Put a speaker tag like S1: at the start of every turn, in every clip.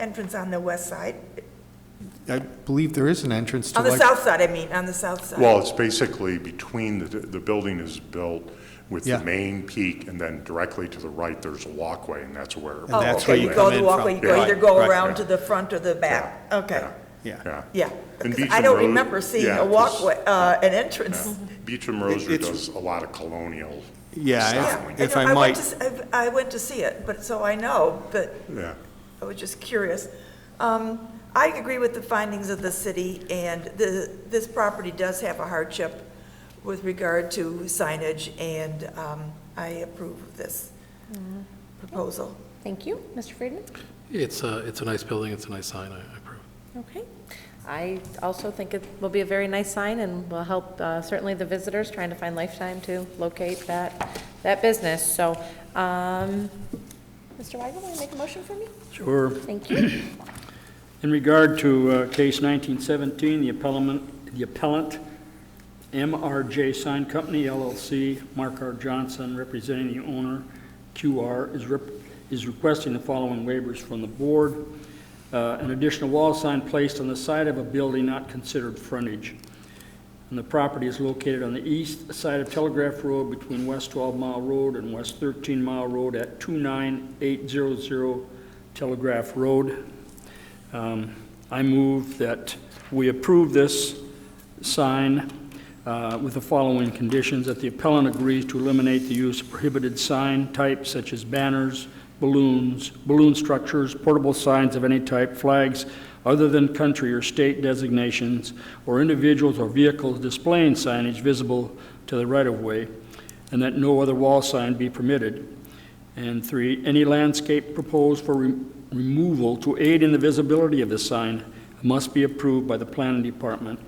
S1: entrance on the west side,
S2: I believe there is an entrance to
S1: on the
S2: like...
S1: south side, I mean, on the south side.
S3: Well, it's basically between, the, the building is built with the
S2: Yeah.
S3: main peak, and then directly to the right, there's a walkway, and that's where.
S2: And that's where
S1: Oh, okay, you
S2: you come
S1: go
S2: in
S1: the
S2: from.
S1: walkway, you go
S2: Yeah.
S1: either go
S2: Right,
S1: around
S3: right.
S1: to the front or the back, okay,
S2: Yeah.
S3: Yeah.
S1: yeah.
S3: And
S1: 'Cause I
S3: Beecham
S1: don't
S3: Road-
S1: remember seeing
S3: yeah,
S1: a
S3: 'cause-
S1: walkway, uh, an entrance.
S3: Beecham Rosary
S2: it's-
S3: does a lot of colonial,
S2: Yeah,
S1: Yeah,
S2: if- if
S1: know,
S2: I
S1: went
S2: might,
S1: to s- I've- I went to see it, but, so I know, but
S3: yeah.
S1: I was just curious. Um, I agree with the findings of the city, and the, this property does have a hardship with regard to signage, and um, I approve of this
S2: Mm-hmm.
S1: proposal.
S4: Thank you. Mr. Friedman?
S5: It's a, it's a nice building, it's a nice sign, I I approve.
S4: Okay. I also think it will be a very nice sign and will help uh, certainly the visitors trying to find Lifetime to locate that, that business. So, um, Mr. Weigel, want to make a motion for me?
S6: Sure.
S4: Thank you.
S6: In regard to uh, case 1917, the appellant, the appellant, MRJ Sign Company LLC, Mark R. Johnson, representing the owner, QR, is rep- is requesting the following waivers from the board. Uh, An additional wall sign placed on the side of a building not considered frontage. And the property is located on the east side of Telegraph Road between West 12 Mile Road and West 13 Mile Road at 29800 Telegraph Road. Um, I move that we approve this sign uh, with the following conditions, that the appellant agrees to eliminate the use of prohibited sign types such as banners, balloons, balloon structures, portable signs of any type, flags other than country or state designations, or individuals or vehicles displaying signage visible to the right-of-way, and that no other wall sign be permitted. And three, any landscape proposed for re- removal to aid in the visibility of the sign must be approved by the planning department.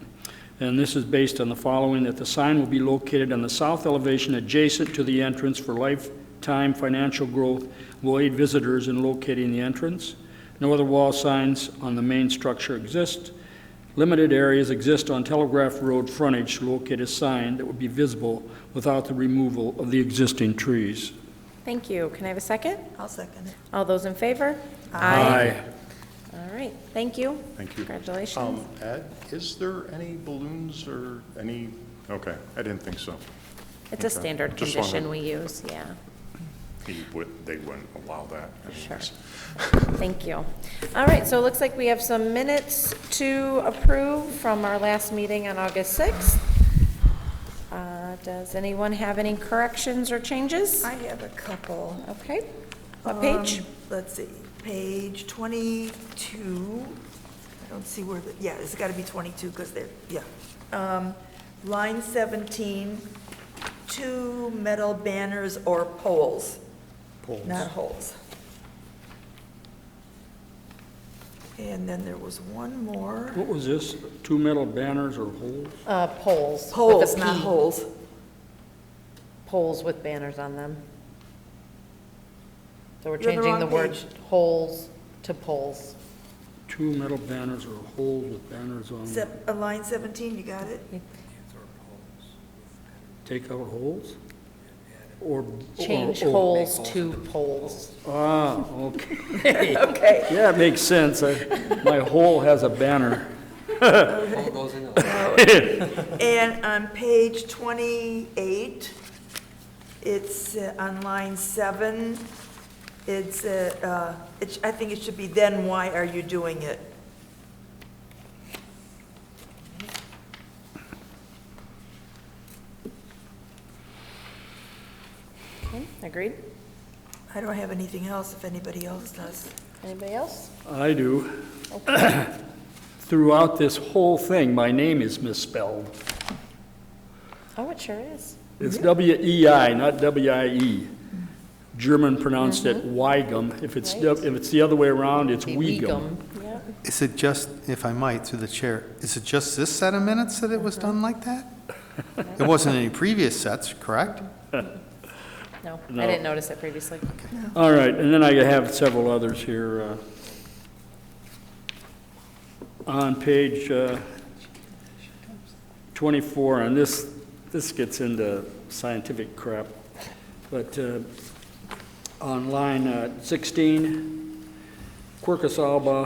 S6: And this is based on the following, that the sign will be located on the south elevation adjacent to the entrance for lifetime financial growth, will aid visitors in locating the entrance. No other wall signs on the main structure exist. Limited areas exist on Telegraph Road frontage to locate a sign that would be visible without the removal of the existing trees.
S4: Thank you. Can I have a second?
S1: I'll second it.
S4: All those in favor? All right. Thank you.
S3: Thank you.
S4: Congratulations.
S3: Um, Ed, is there any balloons or any, okay, I didn't think so.
S4: It's a
S3: okay.
S4: standard
S3: Just wanted-
S4: condition we use, yeah.
S3: He would, they wouldn't allow that.
S4: Sure. Thank you. All right, so it looks like we have some minutes to approve from our last meeting on August 6th. Uh, Does anyone have any corrections or changes?
S1: I have a couple.
S4: Okay, what page?
S1: Um, Let's see, page 22. I don't see where, the yeah, it's got to be 22 because they're, yeah. Um, Line 17, two metal banners or poles. Poles. Not holes. And then there was one more.
S6: What was this? Two metal banners or holes?
S4: Uh, Poles. with a
S1: Poles, not
S4: P. Mm.
S1: holes.
S4: Poles with banners on them. So we're
S1: You're on the
S4: changing the
S1: wrong
S4: word
S1: page.
S4: holes to poles.
S6: Two metal banners or holes with banners on them?
S1: Sep- uh, Line 17, you got it?
S6: Take out holes? Or? or-
S4: Change
S6: or-
S4: holes to poles.
S6: Ah, okay.
S1: Okay.
S6: Yeah, it makes sense. I- My hole has a banner.
S1: And on page 28, it's uh, on line seven, it's, uh, uh, it sh- I think it should be, then why are you doing it?
S4: Okay, Agreed?
S1: I don't have anything else if anybody else does.
S4: Anybody else?
S6: I do. Throughout this whole thing, my name is misspelled.
S4: Oh, it sure is.
S6: It's W-E-I, not W-I-E. German pronounced it Weigum. If it's,
S4: Mm-hmm. Right.
S6: if it's the other way around, it's
S4: Be
S6: Weigum.
S4: Weegum, Yep.
S2: Is it just, if I might, through the chair, is it just this set of minutes that it was done like that? It wasn't any previous sets, correct?
S4: No, I
S6: No.
S4: didn't notice it previously.
S6: All right, and then I have several others here. uh, On page uh, 24, and this, this gets into scientific crap, but uh, on line uh, 16, Quercus alba